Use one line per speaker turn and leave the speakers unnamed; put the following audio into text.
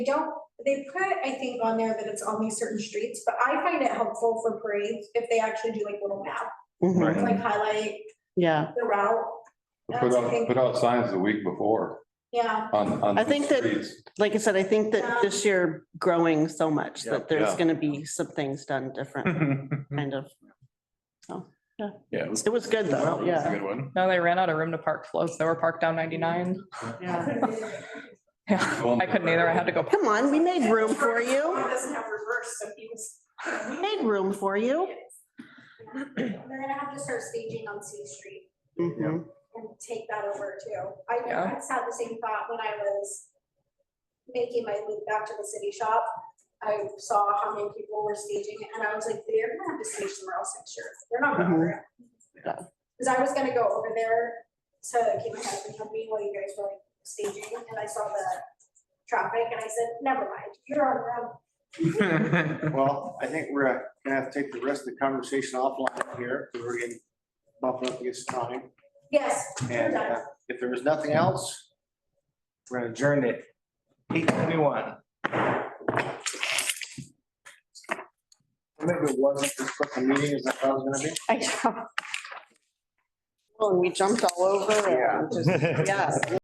They don't, they put, I think, on there that it's only certain streets, but I find it helpful for parades if they actually do like little map,
Right.
like highlight
Mm-hmm. Yeah,
the route.
Put
That's, I
out,
think,
put out signs the week before
yeah,
on, on.
I think that-
streets.
like I said, I think that this year growing so much
Yeah.
that there's
Yeah.
gonna be some things done different, kind of.
Yeah, it was.
It was good though,
It was a
yeah.
Good one.
No, they ran out of room to park floats. They were parked down ninety-nine.
Yeah.
Yeah, I couldn't either. I had to go.
Come on, we made room for you.
It doesn't have reverse, so he was.
We made room for you.
they're gonna have to start staging on C Street
Mhm.
and take that over too. I, I
Yeah.
just had the same thought when I was making my loop back to the city shop. I saw how many people were staging it, and I was like, they're gonna have to stage somewhere else next year. They're not gonna.
Mhm.
hurry up."
Yeah.
Cause I was gonna go over there to keep my husband company while you guys were like staging, and I saw the traffic, and I said, never mind, you're on your own.
Well, I think we're gonna have to take the rest of the conversation offline here, because we're getting bumping up against time.
Yes.
And uh, if there is nothing else, we're gonna adjourn it. Eight twenty-one. Maybe it wasn't as quick a meeting as I thought it was gonna be.
I know. Well, and we jumped all over and just, yeah.